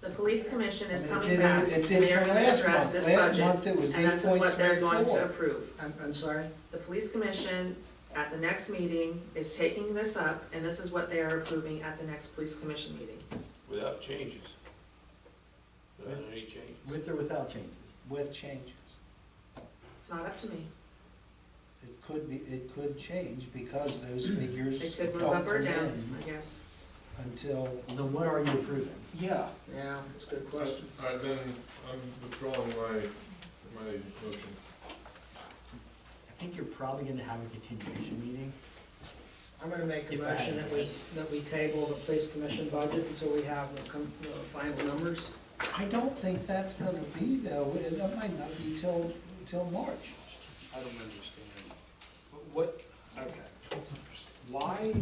The police commission is It coming did- back. it did They are for gonna last address month. this Last budget, month it was And this is what they're going to 8.34. approve. I'm, I'm sorry? The police commission at the next meeting is taking this up, and this is what they are approving at the next police commission meeting. without changes. Without any change. With or without changes? With changes. It's not up to me. It could be, it could change because those figures They don't could move up or come down, in I guess. until, Then what are you approving? yeah. Yeah, that's a good question. I I then, I'm withdrawing my, my motion. I think you're probably gonna have a continuation meeting. I'm gonna make a If I- motion that we, that we table the police commission budget until we have the com- the final numbers. I don't think that's gonna be though, It- that might not be till, till March. I don't understand. What, okay. Why,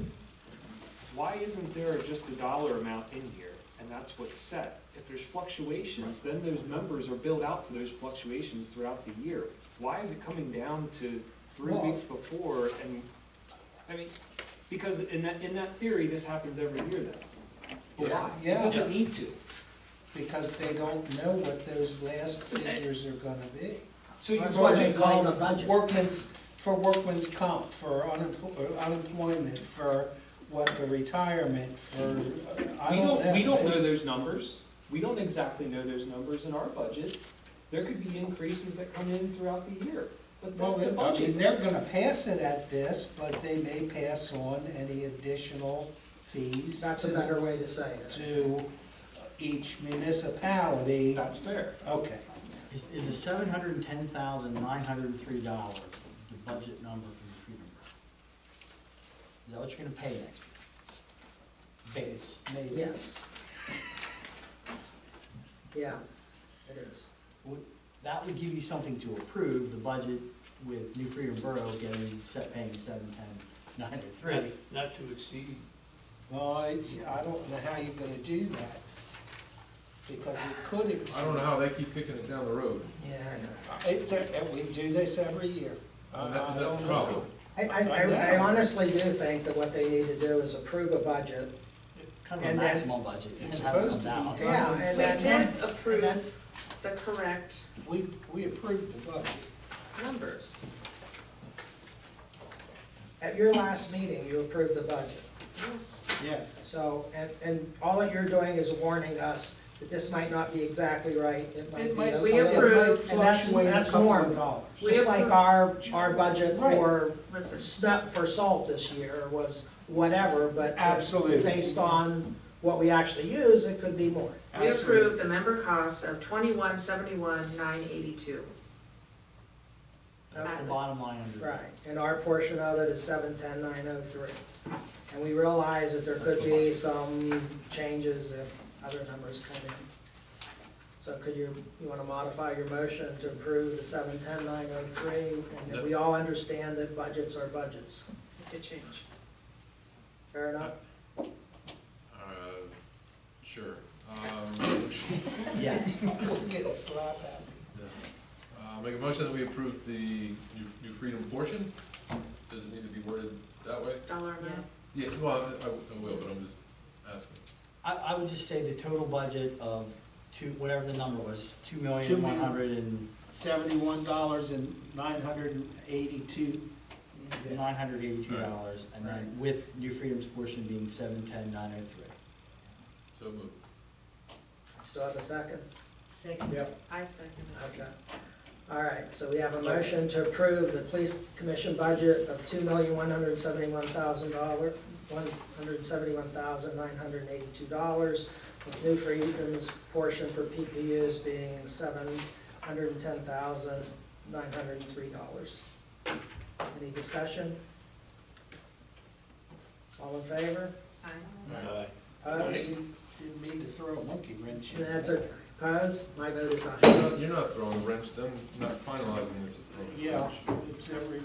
why isn't there just a dollar amount in here, and that's what's set? If there's fluctuations, then those members are billed out for those fluctuations throughout the year. Why is it coming down to three Well- weeks before, and, I mean, because in that, in that theory, this happens every year then. But why? Yeah. It doesn't need to. Because they don't know what those last figures are gonna be. So you That's That's why why they they call blame the it budget. workman's, for workman's comp, for unempl- uh, unemployment, for what, the retirement, for, uh, I don't We know. don't, we don't know those numbers. We don't exactly know those numbers in our budget. There could be increases that come in throughout the year, but Well, that's a I mean, budget. they're gonna pass it at this, but they may pass on any additional fees That's a to, better way to say it. to each municipality. That's fair. Okay, Is, is the seven hundred and ten thousand, nine hundred and three dollars the budget number for your tree number? Is that what you're gonna pay next year? Base. maybe. Yes. Yeah, it is. Would- That would give you something to approve, the budget with New Freedom Borough getting, set paying seven ten, nine oh three. Not to exceed. Well, I, I don't know how you're gonna do that, because it could exceed. I don't know how they keep kicking it down the road. Yeah, It's, a- we do this every year. Uh, that- I That's don't the know. problem. I, I, I- I honestly do think that what they need to do is approve a budget. Kind of a And then- maximum budget. It's Have it come supposed to down. be down Yeah, in and We then- September. did approve the correct We, we approved the budget. numbers. At your last meeting, you approved the budget. Yes. Yes. So, and, and all that you're doing is warning us that this might not be exactly right. It It might might- be. we a- approve. It might And that's- fluctuate a that's couple of normal. dollars. We Just like approve- our, our budget Right. for Listen, snuff for salt this year was whatever, but. Absolutely. Based on what we actually use, it could be more. we Absolutely. approved the member cost of twenty-one seventy-one nine eighty-two. That's the bottom line under. Right, and our portion of it is seven ten nine oh three. And we realize that there could be some changes if other numbers come in. So could you, you wanna modify your motion to approve the seven ten nine oh three, and that we all understand that budgets are budgets. It did change. Fair enough? Uh, Sure. Um, Yes. We'll get a slap at it. Uh, Make a motion that we approve the New New Freedom portion. Does it need to be worded that way? Dollar amount. Yeah, well, I I will, but I'm just asking. I, I would just say the total budget of two, whatever the number was, two million, Two one million. hundred and, Seventy-one dollars and nine hundred and eighty-two. nine hundred eighty-two Right. dollars, and Right. then with New Freedom's portion being seven ten, nine oh three. So moved. Still have a second? Yep. I second Okay. All right, so we have a motion to approve the police commission budget of two million, one hundred and seventy-one thousand dollar, one hundred and seventy-one thousand, nine hundred and eighty-two dollars, with New Freedom's portion for PPUs being seven hundred and ten thousand, nine hundred and three dollars. Any discussion? All in favor? Aye. Aye. Opposed? Didn't mean to throw a monkey wrench in. That's okay. Opposed? My vote is aye. You're not- You're not throwing a wrench, them not finalizing this is throwing a Yeah, wrench. it's every,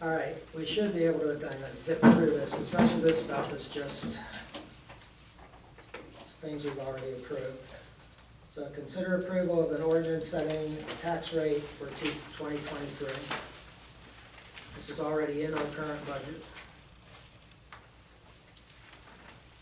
All right, we should be able to kind of zip through this, because most of this stuff is just things we've already approved. So consider approval of an ordinance setting a tax rate for two- 2023. This is already in our current budget.